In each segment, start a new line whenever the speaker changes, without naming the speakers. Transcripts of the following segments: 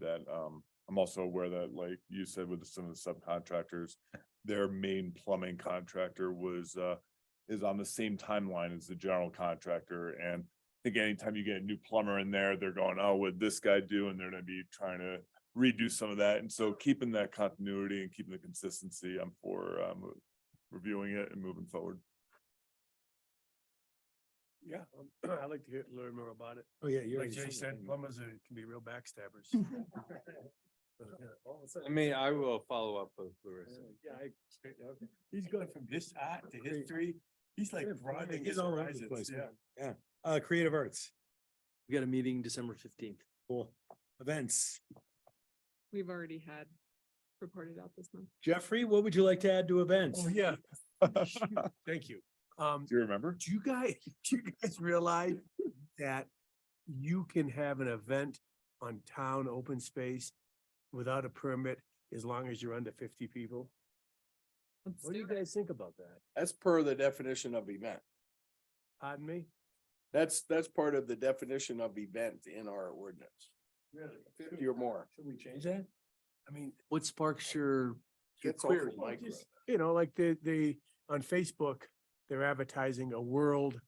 that. Um, I'm also aware that, like you said, with some of the subcontractors, their main plumbing contractor was, uh, is on the same timeline as the general contractor. And I think anytime you get a new plumber in there, they're going, oh, what'd this guy do? And they're gonna be trying to redo some of that. And so keeping that continuity and keeping the consistency, I'm for, um, reviewing it and moving forward.
Yeah, um, I'd like to hear, learn more about it.
Oh, yeah, you're.
Like Jay said, plumbers are, can be real backstabbers.
I mean, I will follow up with Larissa.
Yeah, I, okay. he's going from his art to history. He's like
Yeah, plumbing
broadening
is
his
all over the
horizons,
place,
yeah.
Uh, creative arts,
We got a meeting December fifteenth.
cool, events.
We've already had reported out this month.
Jeffrey, what would you like to add to events?
Oh, yeah,
Do
thank you. Um,
you remember?
do you guys, do you guys realize that you can have an event on town open space without a permit as long as you're under fifty people?
Let's
What do
do
Oh, you
it.
guys think about that?
That's per the definition of event.
Pardon me?
That's, that's part of the definition of event in our ordinance,
Really?
fifty or more.
Should we change that? I mean,
What sparks your? your
Gets off
query?
the micro.
just- you know, like they, they, on Facebook, they're advertising a world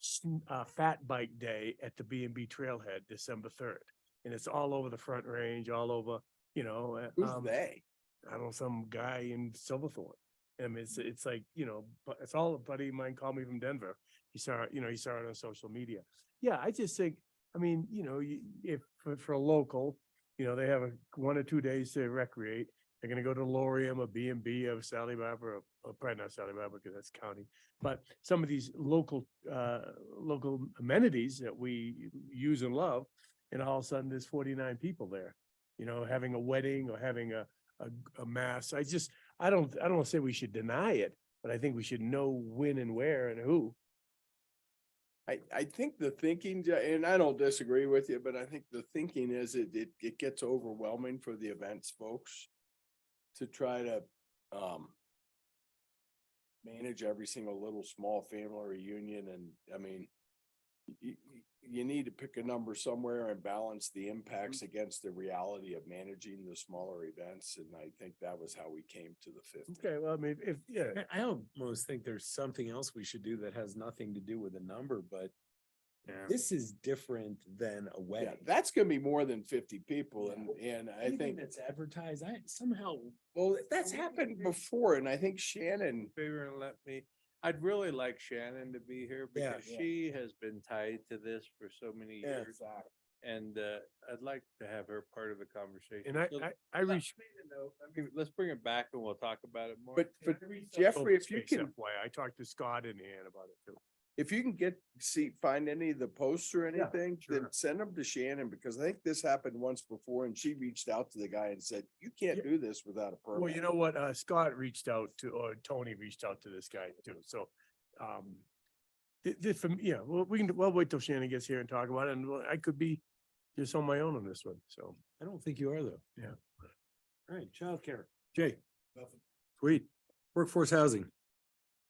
sn- uh, fat bike day at the B and B Trailhead, December third. And it's all over the Front Range, all over, you know, uh,
Who's
um,
they?
I don't know, some guy in Silverthorne. And it's, it's like, you know, but it's all a buddy of mine called me from Denver. He saw, it, you know, he saw it on social media. Yeah, I just think, I mean, you know, you, if, for, for a local, you know, they have a, one or two days to recreate. They're gonna go to Lorium or B and B or Sally Barbara, or- or probably not Sally Barbara because that's county. But some of these local, uh, local amenities that we use and love, and all of a sudden there's forty-nine people there. You know, having a wedding or having a, a, a mass. I just, I don't, I don't say we should deny it, but I think we should know when and where and who.
I, I think the thinking, Ja- and I don't disagree with you, but I think the thinking is it, it, it gets overwhelming for the events folks to try to, um, manage every single little small family reunion and, I mean, you, you need to pick a number somewhere and balance the impacts against the reality of managing the smaller events, and I think that was how we came to the fifty.
Okay, well, I mean, if, yeah,
I- I almost think there's something else we should do that has nothing to do with a number, but this is different than a
Yeah,
wedding.
that's gonna be more than fifty people, and, and I
Anything
think.
That's advertised, I somehow,
Well, that's happened before, and I think Shannon,
favor and let me, I'd really like Shannon to be here
Yeah.
because she has been tied to this for so many
Yeah.
years. And uh, I'd like to have her part of the conversation.
and I,
So
I, I
let
reached.
me know, I mean, let's bring it back and we'll talk about it more.
but, but Jeffrey, if you can,
Oh, Why, I talked to Scott in Ann about it too.
if you can get, see, find any of the posts or
Yeah,
anything, then
sure.
send them to Shannon, because I think this happened once before, and she reached out to the guy and said, you can't
Yeah.
do this without a permit.
Well, you know what, uh, Scott reached out to, or Tony reached out to this guy too, so, um. This, this, from- yeah, well, we can, well, wait till Shannon gets here and talk about it, and well, I could be just on my own on this one, so.
I don't think you are though.
Yeah.
All right, childcare. Jay? Sweet. Workforce housing.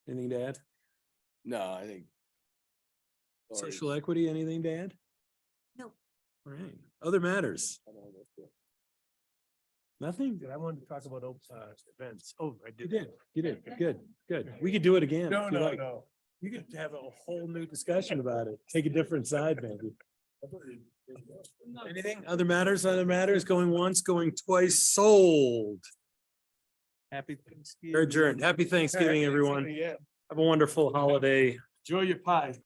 Anything to add?
No, I think. Sorry.
Social equity, anything to add?
No.
All right, other matters,
I don't know what the-
nothing?
I wanted to talk about, op- uh, events. Oh, I
You
did.
did, you did, good, good. We could do it again.
No,
if you
no,
like.
no.
You could have a whole new discussion about it, take a different side maybe. Anything, other matters, other matters, going once, going twice, sold,
Happy Thanksgiving.
You're adjourned. Happy Thanksgiving, everyone.
Yeah.
Have a wonderful holiday.
Enjoy your pie.